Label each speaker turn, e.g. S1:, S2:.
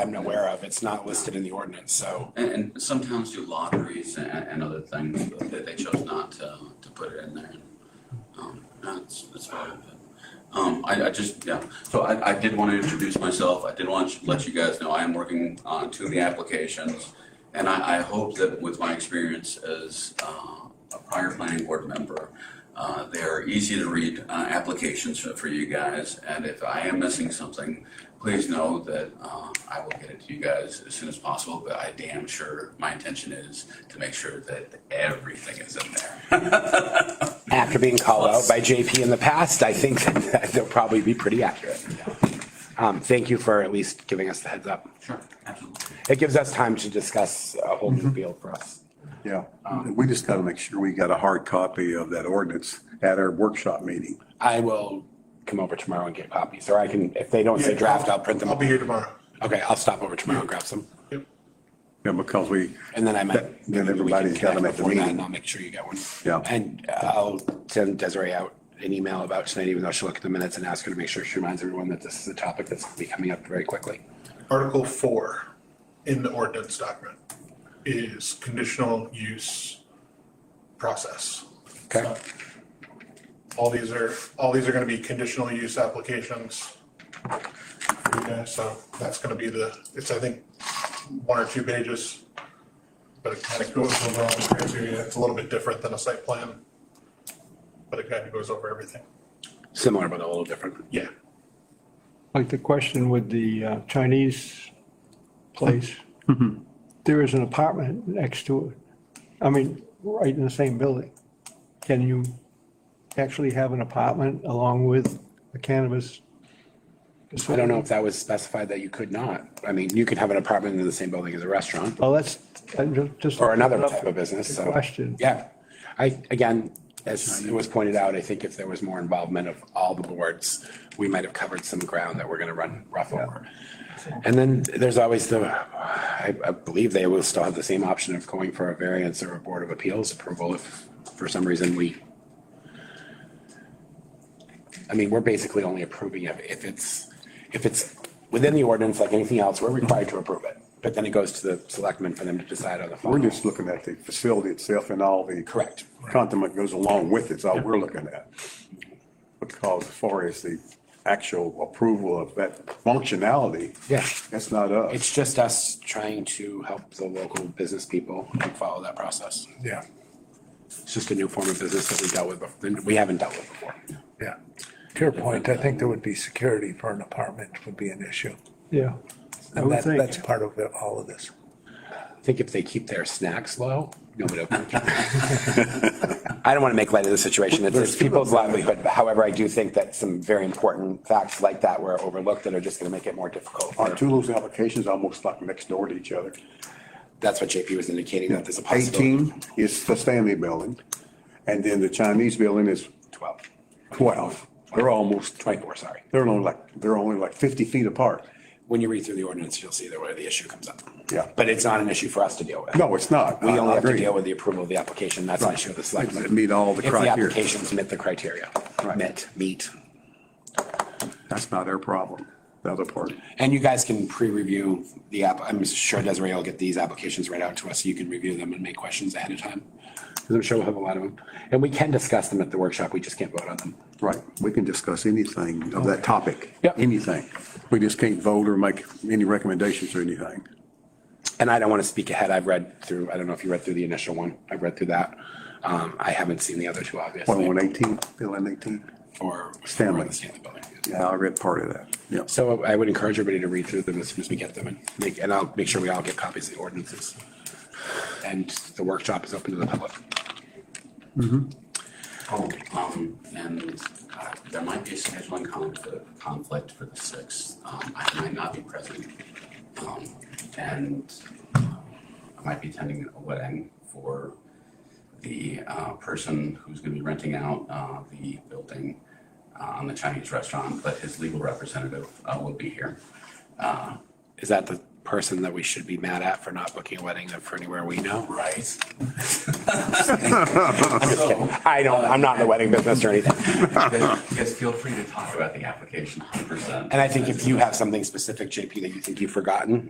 S1: I'm aware of. It's not listed in the ordinance, so.
S2: And, and some towns do lotteries and, and other things that they chose not to, to put it in there. Um, That's, that's part of it. Um, I, I just, yeah, so I, I did want to introduce myself. I did want to let you guys know I am working on two of the applications. And I, I hope that with my experience as, uh, a prior planning board member, uh, they are easy to read, uh, applications for, for you guys. And if I am missing something, please know that uh, I will get it to you guys as soon as possible, but I damn sure, my intention is to make sure that everything is in there.
S1: After being called out by JP in the past, I think that they'll probably be pretty accurate. Um, Thank you for at least giving us the heads up.
S2: Sure, absolutely.
S1: It gives us time to discuss a whole new field for us.
S3: Yeah, we just got to make sure we got a hard copy of that ordinance at our workshop meeting.
S1: I will come over tomorrow and get copies, or I can, if they don't say draft, I'll print them.
S4: I'll be here tomorrow.
S1: Okay, I'll stop over tomorrow and grab some,
S3: Yeah, because we,
S1: and then I might.
S3: Then- then everybody's got 'em at the
S1: Before that,
S3: meeting.
S1: And I'll make sure you get one.
S3: Yeah.
S1: And I'll send Desiree out an email about tonight, even though she'll look at the minutes and ask her to make sure she reminds everyone that this is a topic that's gonna be coming up very quickly.
S4: Article four in the ordinance document is conditional use process.
S1: Okay,
S4: All these are, all these are gonna be conditional use applications. Okay, so that's gonna be the, it's, I think, one or two pages. But it kind of goes over all the criteria. It's a little bit different than a site plan. But it kind of goes over everything.
S1: similar but a little different.
S4: Yeah.
S5: Like the question with the uh, Chinese place,
S1: Mm-hmm.
S5: there is an apartment next to it. I mean, right in the same building. Can you actually have an apartment along with a cannabis?
S1: I don't know if that was specified that you could not. I mean, you could have an apartment in the same building as a restaurant
S5: Well, that's, I'm ju- just.
S1: or another type of business, so.
S5: Question.
S1: Yeah, I, again, as it was pointed out, I think if there was more involvement of all the boards, we might have covered some ground that we're gonna run rough over. And then there's always the, I, I believe they will still have the same option of going for a variance or a Board of Appeals approval if for some reason we. I mean, we're basically only approving if, if it's, if it's within the ordinance, like anything else, we're required to approve it. But then it goes to the selectmen for them to decide on the final.
S3: we're just looking at the facility itself and all the.
S1: Correct.
S3: Condiment goes along with it, is all we're looking at. Because as far as the actual approval of that functionality.
S1: Yeah.
S3: That's not us.
S1: It's just us trying to help the local business people and follow that process.
S3: Yeah,
S1: It's just a new form of business that we dealt with, bef- that we haven't dealt with before.
S6: Yeah. To your point, I think there would be security for an apartment would be an issue.
S5: Yeah. I
S6: And
S5: would
S6: that, that's
S5: think,
S6: part of it- all of this.
S1: I think if they keep their snacks low, nobody will. I don't want to make light of the situation. It's- It's people's livelihood. However, I do think that some very important facts like that were overlooked that are just going to make it more difficult.
S3: our two of those applications are almost like next door to each other.
S1: That's what JP was indicating, that there's a possibility.
S3: 18 is the Stanley Building, and then the Chinese Building is
S1: 12,
S3: 12. They're almost,
S1: 24, sorry.
S3: they're only like, they're only like 50 feet apart.
S1: When you read through the ordinance, you'll see that where the issue comes up.
S3: Yeah.
S1: But it's not an issue for us to deal with.
S3: No, it's not.
S1: We
S3: I- I
S1: only have to
S3: agree.
S1: deal with the approval of the application, that's an issue of the selectmen.
S3: It meet all the
S1: If the
S3: criteria.
S1: applications meet the criteria,
S3: Right.
S1: met, meet.
S3: That's not our problem, the other part.
S1: And you guys can pre-review the app, I'm sure Desiree will get these applications right out to us, so you can review them and make questions ahead of time. Because I'm sure we'll have a lot of them, and we can discuss them at the workshop, we just can't vote on them.
S3: Right, we can discuss anything of that topic.
S1: Yeah.
S3: Anything. We just can't vote or make any recommendations or anything.
S1: And I don't want to speak ahead, I've read through, I don't know if you read through the initial one, I've read through that. Um, I haven't seen the other two,
S3: One on
S1: obviously,
S3: 18, Bill and 18.
S1: or.
S3: Stanley.
S1: or the Stanley Building.
S3: Yeah, I read part of that. Yeah.
S1: So I would encourage everybody to read through them as soon as we get them and make, and I'll make sure we all get copies of the ordinances. And the workshop is open to the public.
S2: Oh, um, and uh, there might be a scheduling conflict, conflict for the sixth. Um, I might not be present. Um, and uh, I might be attending a wedding for the uh, person who's gonna be renting out uh, the building uh, on the Chinese restaurant, but his legal representative uh, will be here. Uh,
S1: Is that the person that we should be mad at for not booking a wedding for anywhere we know?
S2: Right.
S1: I don't, I'm not in the wedding business or anything.
S2: Yes, feel free to talk about the application, hundred percent.
S1: And I think if you have something specific, JP, that you think you've forgotten,